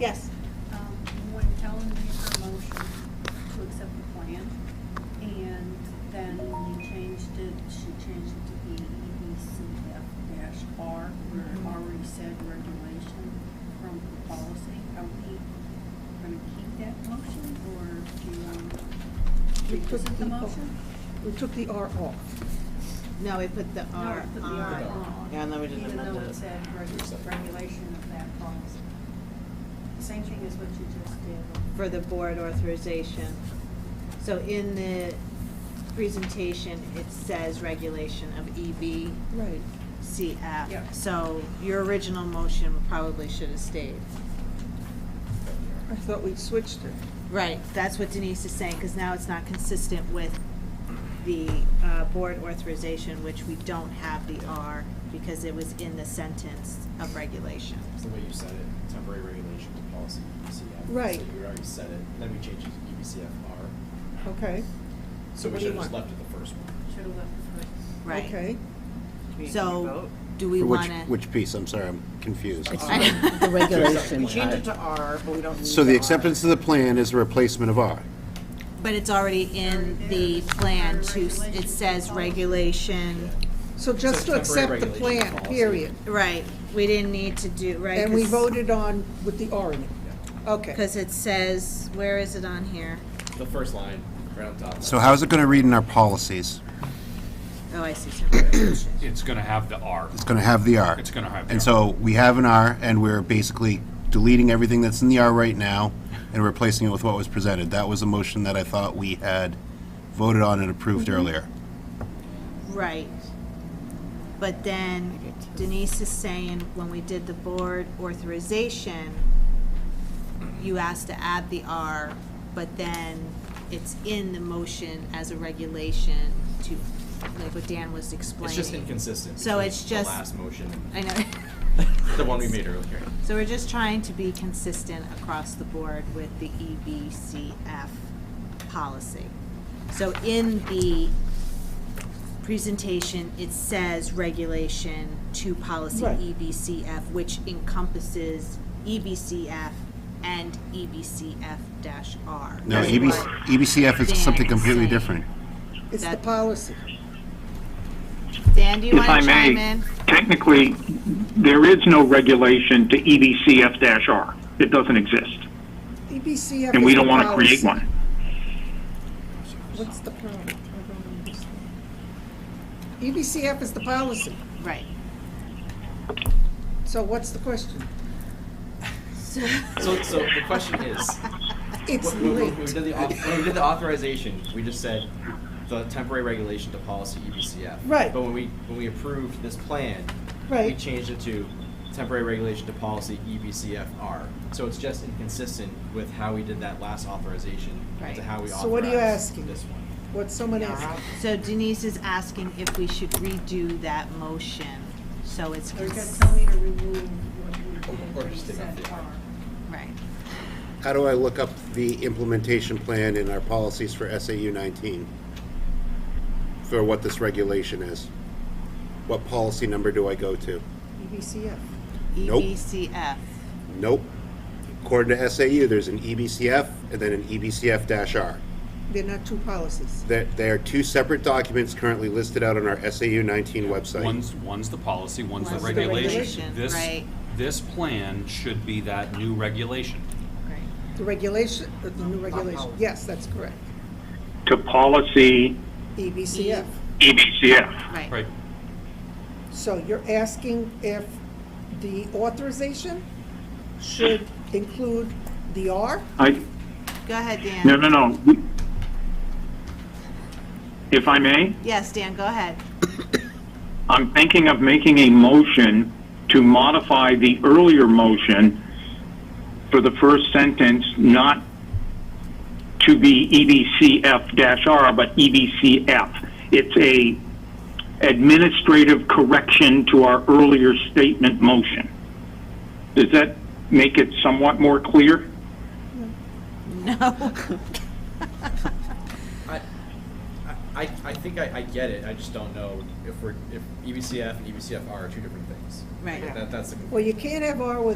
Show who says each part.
Speaker 1: Yes.
Speaker 2: Um, When Helen made her motion to accept the plan, and then we changed it, she changed it to be E EBCF dash R, where
Speaker 1: Mm-hmm.
Speaker 2: it already said regulation from the policy. Are we gonna keep that motion, or do you, um,
Speaker 1: We took E
Speaker 2: revisit the
Speaker 1: the-
Speaker 2: motion?
Speaker 1: We took the R off.
Speaker 3: No, we put the
Speaker 2: No,
Speaker 3: R
Speaker 2: it put the R
Speaker 3: on.
Speaker 2: on.
Speaker 3: Yeah, and then we just
Speaker 2: Even though
Speaker 3: amended
Speaker 2: it
Speaker 3: it.
Speaker 2: said reg- regulation of that policy. Same thing as what you just did.
Speaker 3: For the board authorization. So in the presentation, it says regulation of E EBCF.
Speaker 1: Right.
Speaker 2: Yeah.
Speaker 3: So your original motion probably should have stayed.
Speaker 1: I thought we'd switched it.
Speaker 3: Right, that's what Denise is saying, because now it's not consistent with the uh, board authorization, which we don't have the R, because it was in the sentence of regulation.
Speaker 4: It's the way you said it, temporary regulation to policy E EBCF.
Speaker 1: Right.
Speaker 4: So you already said it, and then we changed it to E EBCFR.
Speaker 1: Okay.
Speaker 4: So we
Speaker 1: What do you
Speaker 4: should have just
Speaker 1: want?
Speaker 4: left it the first one.
Speaker 2: Should have left the first.
Speaker 3: Right.
Speaker 1: Okay.
Speaker 3: So, do we
Speaker 5: For
Speaker 3: want
Speaker 5: which,
Speaker 3: to?
Speaker 5: which piece? I'm sorry, I'm confused.
Speaker 6: The regulation.
Speaker 4: We changed it
Speaker 6: to R, but we don't
Speaker 5: So the acceptance of the plan is the replacement of R.
Speaker 3: But it's already in the plan to, it says regulation,
Speaker 1: So just to
Speaker 4: temporary
Speaker 1: accept the
Speaker 4: regulation
Speaker 1: plan,
Speaker 4: policy.
Speaker 1: period.
Speaker 3: right, we didn't need to do, right?
Speaker 1: And we voted on with the R in it. Okay.
Speaker 3: Because it says, where is it on here?
Speaker 4: The first line, right on top.
Speaker 5: So how's it going to read in our policies?
Speaker 3: Oh, I see something.
Speaker 7: It's gonna have the R.
Speaker 5: It's going to have the R.
Speaker 7: It's gonna have the
Speaker 5: And
Speaker 7: R.
Speaker 5: so we have an R, and we're basically deleting everything that's in the R right now and replacing it with what was presented. That was a motion that I thought we had voted on and approved earlier.
Speaker 3: Right. But then Denise is saying, when we did the board authorization, you asked to add the R, but then it's in the motion as a regulation to, like what Dan was explaining.
Speaker 4: It's just inconsistent.
Speaker 3: So
Speaker 4: between
Speaker 3: it's just-
Speaker 4: The last motion,
Speaker 3: I
Speaker 4: and
Speaker 3: know.
Speaker 4: the one we made earlier.
Speaker 3: So we're just trying to be consistent across the board with the E EBCF policy. So in the presentation, it says regulation to policy E
Speaker 1: Right.
Speaker 3: EBCF, which encompasses E EBCF and E EBCF dash R.
Speaker 5: No, EBC EBCF is something completely different.
Speaker 1: It's the
Speaker 3: That-
Speaker 1: policy.
Speaker 3: Dan, do you
Speaker 8: If
Speaker 3: want
Speaker 8: I
Speaker 3: to chime
Speaker 8: may,
Speaker 3: in?
Speaker 8: technically, there is no regulation to E EBCF-R. It doesn't exist,
Speaker 1: E EBCF
Speaker 8: and we
Speaker 1: is the
Speaker 8: don't want to create
Speaker 1: policy.
Speaker 8: one.
Speaker 1: What's the problem? E I don't understand. EBCF is the policy.
Speaker 3: Right.
Speaker 1: So what's the question?
Speaker 4: So, so the question is,
Speaker 1: It's
Speaker 4: When when- when we
Speaker 1: linked.
Speaker 4: did the, auth- when we did the authorization, we just said the temporary regulation to policy E EBCF.
Speaker 1: Right.
Speaker 4: But when we, when we approved this plan. We
Speaker 1: Right.
Speaker 4: changed it to temporary regulation to policy E EBCFR. So it's just inconsistent with how we did that last authorization.
Speaker 3: Right.
Speaker 4: To how we
Speaker 1: So what are you
Speaker 4: authorized
Speaker 1: asking?
Speaker 4: this one.
Speaker 1: What someone asked.
Speaker 3: So Denise is asking if we should redo that motion, so it's.
Speaker 2: They're
Speaker 3: cons-
Speaker 2: just telling me to remove what you
Speaker 4: Or
Speaker 2: did, you
Speaker 4: just take
Speaker 2: said
Speaker 4: out the-
Speaker 2: are.
Speaker 3: Right.
Speaker 5: How do I look up the implementation plan in our policies for SAU 19? For what this regulation is? What policy number do I go to?
Speaker 1: E EBCF.
Speaker 5: Nope.
Speaker 3: E EBCF.
Speaker 5: Nope. According to SAU, there's an E EBCF and then an E EBCF-R.
Speaker 1: They're not two policies.
Speaker 5: There, there are two separate documents currently listed out on our SAU 19 website.
Speaker 7: One's, one's the policy, one's the
Speaker 3: One's the regulation,
Speaker 7: regulation. This
Speaker 3: right.
Speaker 7: This plan should be that new regulation.
Speaker 3: Right.
Speaker 1: The regulation, uh, the new regulation, yes, that's correct. E,
Speaker 8: To policy E
Speaker 1: EBCF.
Speaker 8: EBCF.
Speaker 7: Right,
Speaker 1: So you're asking if the authorization should include the R?
Speaker 8: I,
Speaker 3: Go ahead, Dan.
Speaker 8: no, no, no. If I may,
Speaker 3: Yes, Dan, go ahead.
Speaker 8: I'm thinking of making a motion to modify the earlier motion for the first sentence, not to be E EBCF-R, but E EBCF. It's a administrative correction to our earlier statement motion. Does that make it somewhat more clear?
Speaker 3: No.
Speaker 4: I, I, I- I think I, I get it, I just don't know E if we're, if EBCF and EBCFR are two different things.
Speaker 3: Right.
Speaker 4: That, that's the
Speaker 1: Well, you can't have R without